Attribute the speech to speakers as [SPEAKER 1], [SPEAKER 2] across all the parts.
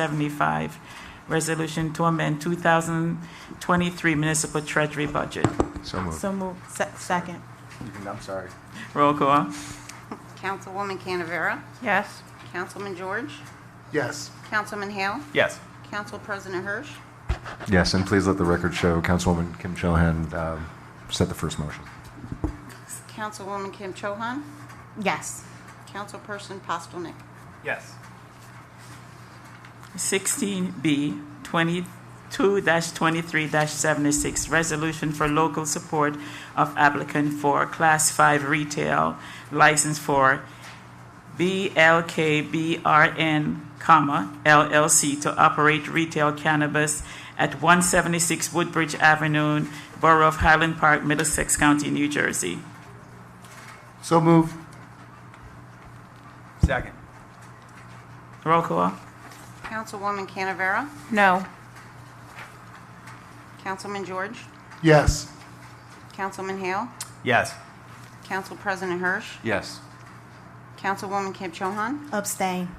[SPEAKER 1] 75, resolution to amend 2023 municipal treasury budget.
[SPEAKER 2] So moved.
[SPEAKER 3] So moved. Se- Second.
[SPEAKER 4] I'm sorry.
[SPEAKER 1] Roll call.
[SPEAKER 5] Councilwoman Canavera?
[SPEAKER 3] Yes.
[SPEAKER 5] Councilman George?
[SPEAKER 4] Yes.
[SPEAKER 5] Councilman Hale?
[SPEAKER 4] Yes.
[SPEAKER 5] Council President Hirsch?
[SPEAKER 2] Yes, and please let the record show, Councilwoman Kim Chohan um, set the first motion.
[SPEAKER 5] Councilwoman Kim Cho Han?
[SPEAKER 3] Yes.
[SPEAKER 5] Councilperson Postelnick?
[SPEAKER 4] Yes.
[SPEAKER 1] 16B, 22-23-76, resolution for local support of applicant for Class 5 retail license for BLKBRN, comma, LLC to operate retail cannabis at 176 Woodbridge Avenue, Borough of Highland Park, Middlesex County, New Jersey.
[SPEAKER 4] So moved. Second.
[SPEAKER 1] Roll call.
[SPEAKER 5] Councilwoman Canavera?
[SPEAKER 3] No.
[SPEAKER 5] Councilman George?
[SPEAKER 4] Yes.
[SPEAKER 5] Councilman Hale?
[SPEAKER 4] Yes.
[SPEAKER 5] Council President Hirsch?
[SPEAKER 4] Yes.
[SPEAKER 5] Councilwoman Kim Cho Han?
[SPEAKER 3] Abstain.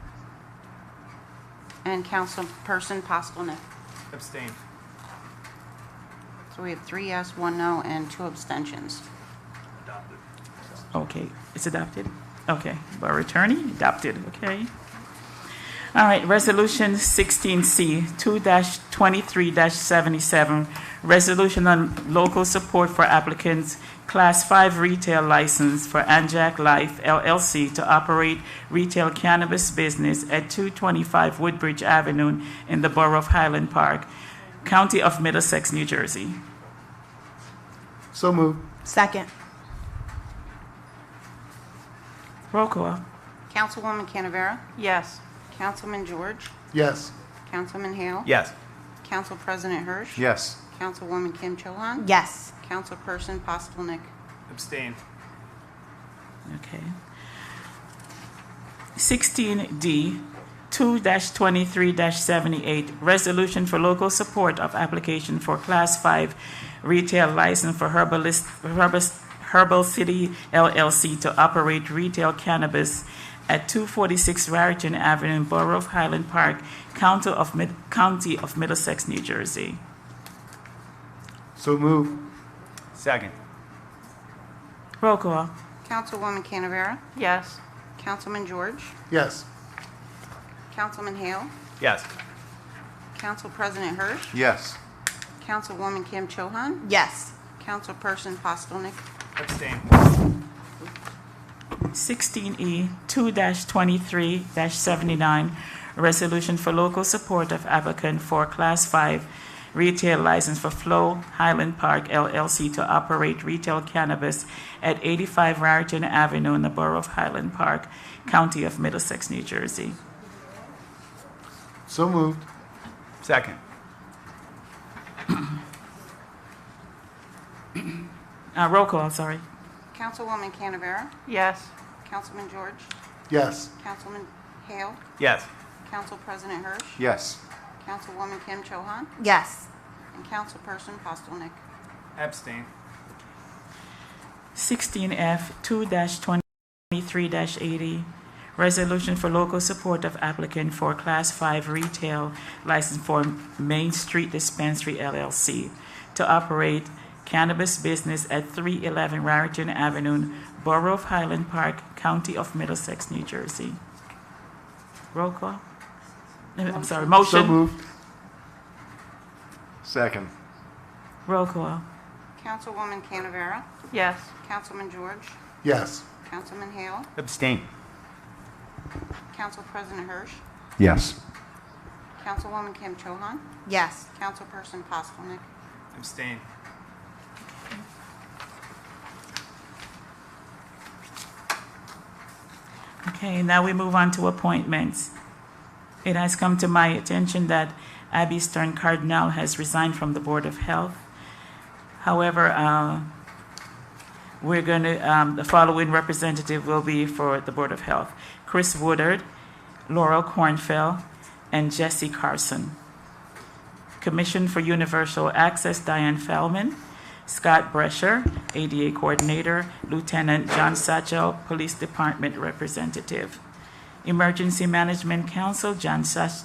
[SPEAKER 5] And Councilperson Postelnick?
[SPEAKER 4] Abstain.
[SPEAKER 5] So we have three yes, one no, and two abstentions.
[SPEAKER 1] Okay, it's adopted? Okay, Borough Attorney, adopted, okay. All right, Resolution 16C, 2-23-77, resolution on local support for applicants, Class 5 retail license for Anjac Life LLC to operate retail cannabis business at 225 Woodbridge Avenue in the Borough of Highland Park, County of Middlesex, New Jersey.
[SPEAKER 4] So moved.
[SPEAKER 3] Second.
[SPEAKER 1] Roll call.
[SPEAKER 5] Councilwoman Canavera?
[SPEAKER 3] Yes.
[SPEAKER 5] Councilman George?
[SPEAKER 4] Yes.
[SPEAKER 5] Councilman Hale?
[SPEAKER 4] Yes.
[SPEAKER 5] Council President Hirsch?
[SPEAKER 2] Yes.
[SPEAKER 5] Councilwoman Kim Cho Han?
[SPEAKER 3] Yes.
[SPEAKER 5] Councilperson Postelnick?
[SPEAKER 4] Abstain.
[SPEAKER 1] Okay. 16D, 2-23-78, resolution for local support of application for Class 5 retail license for Herbalist, Herbis- Herbal City LLC to operate retail cannabis at 246 Raritan Avenue, Borough of Highland Park, County of Mid, County of Middlesex, New Jersey.
[SPEAKER 4] So moved. Second.
[SPEAKER 1] Roll call.
[SPEAKER 5] Councilwoman Canavera?
[SPEAKER 3] Yes.
[SPEAKER 5] Councilman George?
[SPEAKER 4] Yes.
[SPEAKER 5] Councilman Hale?
[SPEAKER 4] Yes.
[SPEAKER 5] Council President Hirsch?
[SPEAKER 2] Yes.
[SPEAKER 5] Councilwoman Kim Cho Han?
[SPEAKER 3] Yes.
[SPEAKER 5] Councilperson Postelnick?
[SPEAKER 4] Abstain.
[SPEAKER 1] 16E 2-23-79, resolution for local support of applicant for Class 5 retail license for Flow Highland Park LLC to operate retail cannabis at 85 Raritan Avenue in the Borough of Highland Park, County of Middlesex, New Jersey.
[SPEAKER 4] So moved. Second.
[SPEAKER 1] Uh, Roll call, sorry.
[SPEAKER 5] Councilwoman Canavera?
[SPEAKER 3] Yes.
[SPEAKER 5] Councilman George?
[SPEAKER 4] Yes.
[SPEAKER 5] Councilman Hale?
[SPEAKER 4] Yes.
[SPEAKER 5] Council President Hirsch?
[SPEAKER 2] Yes.
[SPEAKER 5] Councilwoman Kim Cho Han?
[SPEAKER 3] Yes.
[SPEAKER 5] And Councilperson Postelnick?
[SPEAKER 4] Abstain.
[SPEAKER 1] 16F 2-23-80, resolution for local support of applicant for Class 5 retail license for Main Street Dispensary LLC to operate cannabis business at 311 Raritan Avenue, Borough of Highland Park, County of Middlesex, New Jersey. Roll call. I'm sorry,
[SPEAKER 4] So
[SPEAKER 1] motion.
[SPEAKER 4] moved.
[SPEAKER 2] Second.
[SPEAKER 1] Roll call.
[SPEAKER 5] Councilwoman Canavera?
[SPEAKER 3] Yes.
[SPEAKER 5] Councilman George?
[SPEAKER 4] Yes.
[SPEAKER 5] Councilman Hale?
[SPEAKER 4] Abstain.
[SPEAKER 5] Council President Hirsch?
[SPEAKER 2] Yes.
[SPEAKER 5] Councilwoman Kim Cho Han?
[SPEAKER 3] Yes.
[SPEAKER 5] Councilperson Postelnick?
[SPEAKER 4] Abstain.
[SPEAKER 1] Okay, now we move on to appointments. It has come to my attention that Abby Stern Cardinal has resigned from the Board of Health. However, uh, we're going to, the following representative will be for the Board of Health. Chris Woodard, Laurel Cornfell, and Jesse Carson. Commission for Universal Access, Diane Fellman. Scott Brescher, ADA Coordinator. Lieutenant John Satchel, Police Department Representative. Emergency Management Council, John Sach-